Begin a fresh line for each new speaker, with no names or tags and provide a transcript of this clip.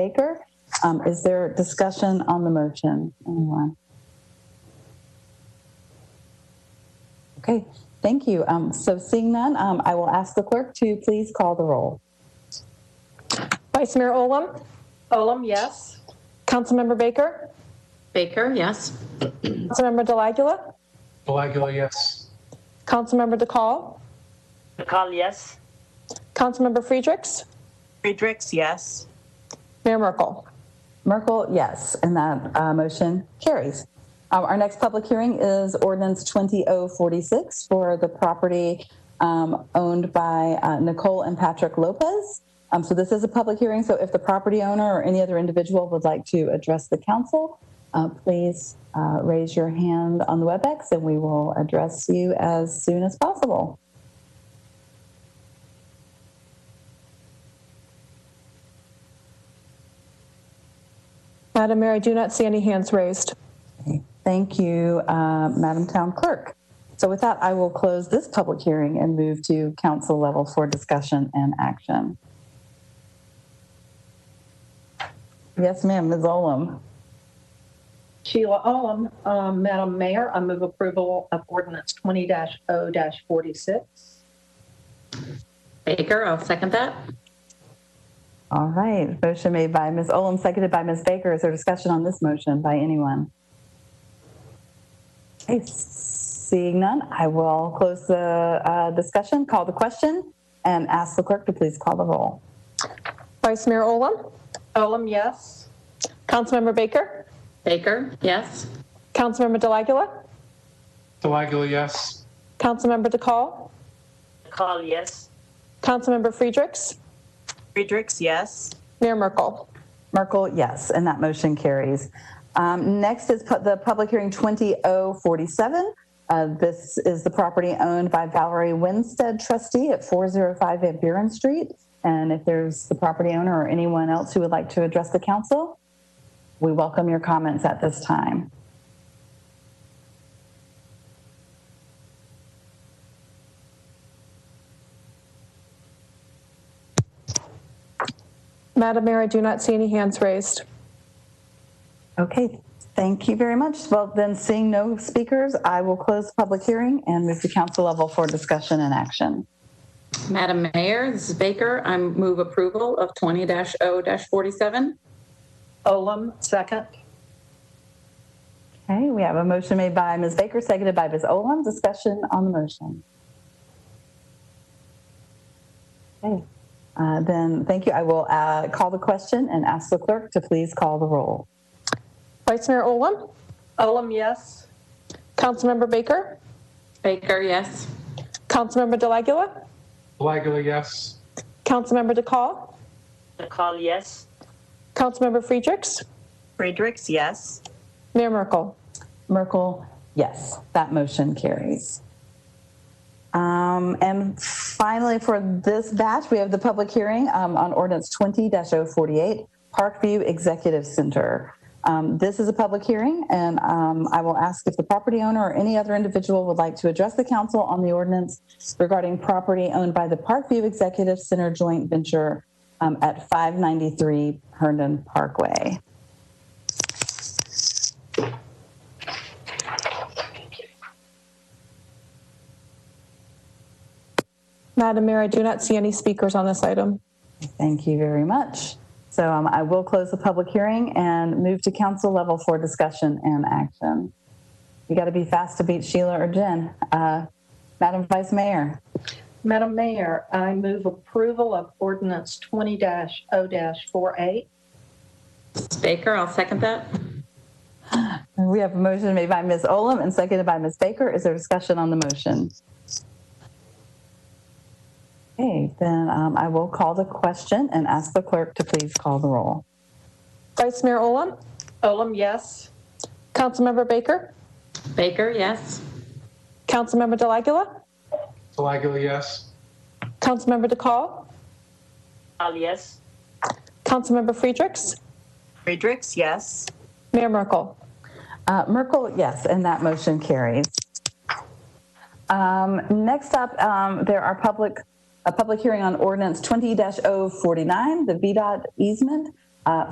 Baker. Um, Is there discussion on the motion? Anyone? Okay, thank you. Um, So seeing none, um, I will ask the clerk to please call the roll.
Vice Mayor Olem,
Olem, yes.
Councilmember Baker,
Baker, yes.
Councilmember Delagula,
Delagula, yes.
Councilmember DeCall,
McCall, yes.
Councilmember Friedrichs,
Friedrichs, yes.
Mayor Merkel.
Merkel, yes, and that uh, motion carries. Um, Our next public hearing is ordinance 20046 for the property um, owned by uh, Nicole and Patrick Lopez. Um, So this is a public hearing, so if the property owner or any other individual would like to address the council, uh, please uh, raise your hand on the WebEx and we will address you as soon as possible.
Madam Mayor, I do not see any hands raised.
Thank you, uh, Madam Town Clerk. So with that, I will close this public hearing and move to council level for discussion and action. Yes, ma'am, Ms. Olam.
Sheila Olem, um, Madam Mayor, I move approval of ordinance 20-0-46.
Baker, I'll second that.
All right, motion made by Ms. Olam, seconded by Ms. Baker. Is there discussion on this motion by anyone? Okay, seeing none, I will close the uh, discussion, call the question, and ask the clerk to please call the roll.
Vice Mayor Olem,
Olem, yes.
Councilmember Baker,
Baker, yes.
Councilmember Delagula,
Delagula, yes.
Councilmember DeCall,
McCall, yes.
Councilmember Friedrichs,
Friedrichs, yes.
Mayor Merkel.
Merkel, yes, and that motion carries. Um, Next is pu- the public hearing 20047. Uh, This is the property owned by Valerie Winstead trustee at 405 Van Buren Street. And if there's the property owner or anyone else who would like to address the council, we welcome your comments at this time.
Madam Mayor, I do not see any hands raised.
Okay, thank you very much. Well, then, seeing no speakers, I will close the public hearing and move to council level for discussion and action.
Madam Mayor, this is Baker. I move approval of 20-0-47.
Olem, second.
Okay, we have a motion made by Ms. Baker, seconded by Ms. Olam. Discussion on the motion. Okay, uh, then, thank you. I will uh, call the question and ask the clerk to please call the roll.
Vice Mayor Olem,
Olem, yes.
Councilmember Baker,
Baker, yes.
Councilmember Delagula,
Delagula, yes.
Councilmember DeCall,
McCall, yes.
Councilmember Friedrichs,
Friedrichs, yes.
Mayor Merkel.
Merkel, yes, that motion carries. Um, and finally, for this batch, we have the public hearing um, on ordinance 20 048, Parkview Executive Center. Um, this is a public hearing, and um, I will ask if the property owner or any other individual would like to address the council on the ordinance regarding property owned by the Parkview Executive Center joint venture um, at 593 Herndon Parkway.
Madam Mayor, I do not see any speakers on this item.
Thank you very much. So um, I will close the public hearing and move to council level for discussion and action. You got to be fast to beat Sheila or Jen. Uh, Madam Vice Mayor,
Madam Mayor, I move approval of ordinance 20-0-48.
This is Baker, I'll second that.
we have a motion made by Ms. Olam and seconded by Ms. Baker. Is there discussion on the motion? Okay, then um, I will call the question and ask the clerk to please call the roll.
Vice Mayor Olem,
Olem, yes.
Councilmember Baker,
Baker, yes.
Councilmember Delagula,
Delagula, yes.
Councilmember DeCall,
McCall, yes.
Councilmember Friedrichs,
Friedrichs, yes.
Mayor Merkel.
Uh, Merkel, yes, and that motion carries. Um, Next up, um, there are public, oh a public hearing on ordinance 20-049, the VDOT easement uh,